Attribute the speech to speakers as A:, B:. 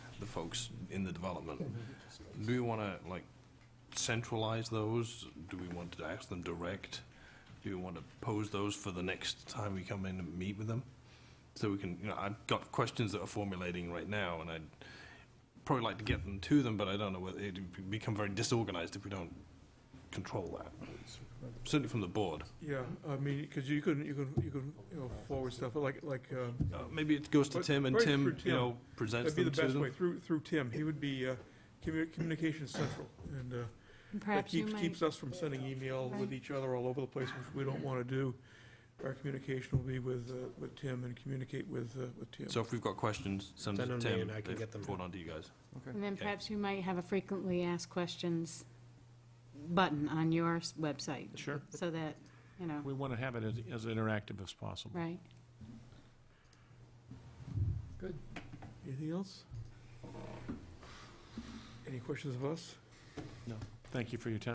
A: folks in the development. Do we want to, like, centralize those? Do we want to ask them direct? Do we want to pose those for the next time we come in and meet with them? So we can, you know, I've got questions that are formulating right now, and I'd probably like to get them to them, but I don't know whether, it'd become very disorganized if we don't control that. Certainly from the board.
B: Yeah, I mean, because you can, you can, you can, you know, forward stuff, like, like, uh,
A: Uh, Maybe it goes to
B: Right-
A: Tim, and
B: right through
A: Tim, you
B: Tim.
A: know, presents
B: that'd be
A: them
B: the
A: to
B: best way,
A: them.
B: through, through Tim. He would be uh, commu- communications central, and uh, that
C: Perhaps you
B: keeps,
C: might,
B: keeps us from sending email with
C: Right.
B: each other all over the place, which we don't want to do. Our communication will be with, uh, with Tim and communicate with, uh, with Tim.
A: So if we've got questions, send
D: Send
A: them
D: them
A: to
D: to me
A: Tim.
D: and I can
A: They
D: get them.
A: Forward on to you guys.
C: and then
A: Okay.
C: perhaps you might have a frequently asked questions button on your s- website,
D: Sure.
C: so that, you know,
E: We want to have it as, as interactive as possible.
C: right?
B: Anything else? Any questions of us?
E: Thank you for your time.